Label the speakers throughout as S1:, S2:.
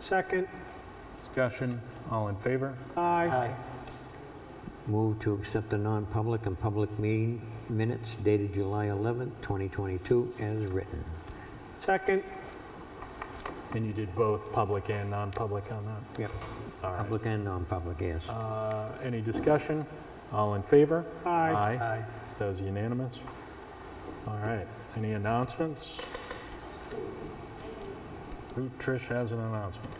S1: Second.
S2: Discussion, all in favor?
S1: Aye.
S3: Move to accept the non-public and public meeting minutes dated July 11th, 2022, as written.
S1: Second.
S2: And you did both public and non-public on that?
S3: Yep.
S2: All right.
S3: Public and non-public, yes.
S2: Uh, Any discussion? All in favor?
S1: Aye.
S2: Aye. That was unanimous. All right, any announcements? Who- Trish has an announcement.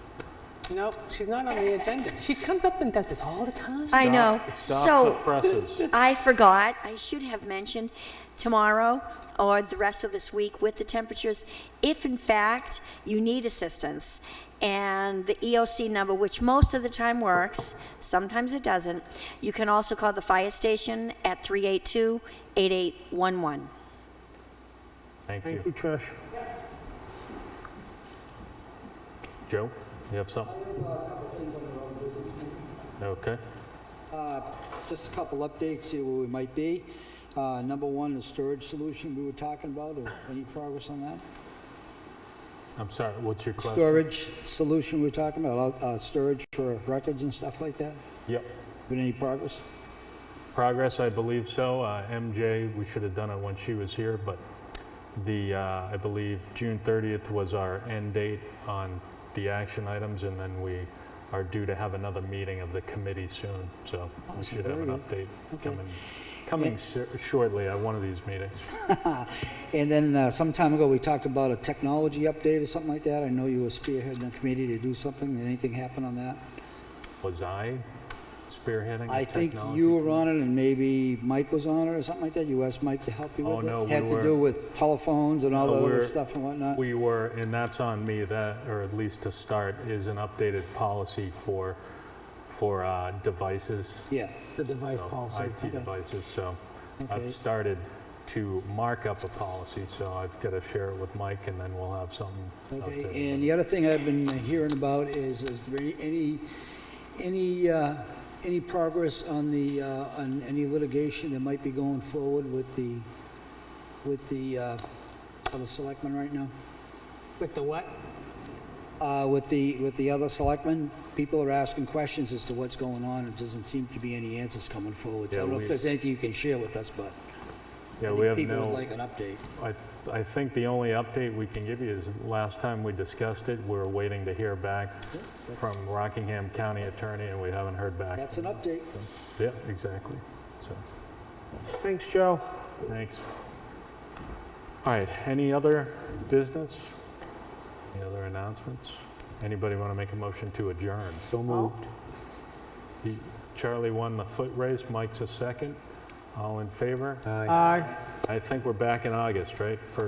S4: No, she's not on the agenda. She comes up and does this all the time.
S5: I know.
S2: Stop- Stop the
S5: So
S2: presses.
S5: I forgot, I should have mentioned tomorrow or the rest of this week with the temperatures, if in fact you need assistance and the EOC number, which most of the time works, sometimes it doesn't, you can also call the fire station at 382 8811.
S2: Thank
S1: Thank
S2: you.
S1: you, Trish.
S2: Joe, you have something? Okay.
S6: Just a couple updates, see where we might be. Uh, Number one, the storage solution we were talking about, or any progress on that?
S2: I'm sorry, what's your question?
S6: Storage solution we were talking about, uh, uh, storage for records and stuff like that?
S2: Yep.
S6: Been any progress?
S2: Progress, I believe so. Uh, MJ, we should have done it when she was here, but the, uh, I believe June 30th was our end date on the action items, and then we are due to have another meeting of the committee soon, so we should have an update
S6: Oh, Okay.
S2: coming, coming ser- shortly at one of these meetings.
S6: And then uh, some time ago, we talked about a technology update or something like that. I know you were spearheading a committee to do something. Did anything happen on that?
S2: Was I spearheading
S6: I
S2: the
S6: think
S2: technology
S6: you were on it and maybe Mike was on it or something like that. You asked Mike to help you
S2: Oh,
S6: with it?
S2: no, we
S6: Had
S2: were-
S6: to do with telephones and all
S2: No,
S6: that other
S2: we're-
S6: stuff and whatnot?
S2: We were, and that's on me, that, or at least to start, is an updated policy for, for uh, devices.
S6: Yeah.
S4: The device
S2: so,
S4: policy.
S2: IT devices, so
S6: Okay.
S2: I've started to mark up a policy, so I've got to share it with Mike, and then we'll have something. out there.
S6: Okay, and the other thing I've been hearing about is, is there any- any, any, uh, any progress on the, uh, on any litigation that might be going forward with the, with the, uh, other selectmen right now?
S4: With the what?
S6: Uh, With the, with the other selectmen, people are asking questions as to what's going on, and doesn't seem to be any answers coming forward. So I
S2: Yeah,
S6: don't know
S2: we-
S6: if there's anything you can share with us, but
S2: Yeah,
S6: I
S2: we
S6: think
S2: have
S6: people would
S2: no,
S6: like an update.
S2: I, I think the only update we can give you is last time we discussed it, we are waiting to hear back from Rockingham County Attorney, and we haven't heard back.
S6: That's an update.
S2: Yeah, exactly, so.
S1: Thanks, Joe.
S2: Thanks. All right, any other business? Any other announcements? Anybody want to make a motion to adjourn?
S3: So moved.
S2: He- Charlie won the foot race, Mike's a second. All in favor?
S3: Aye.
S1: Aye.
S2: I think we're back in August, right? For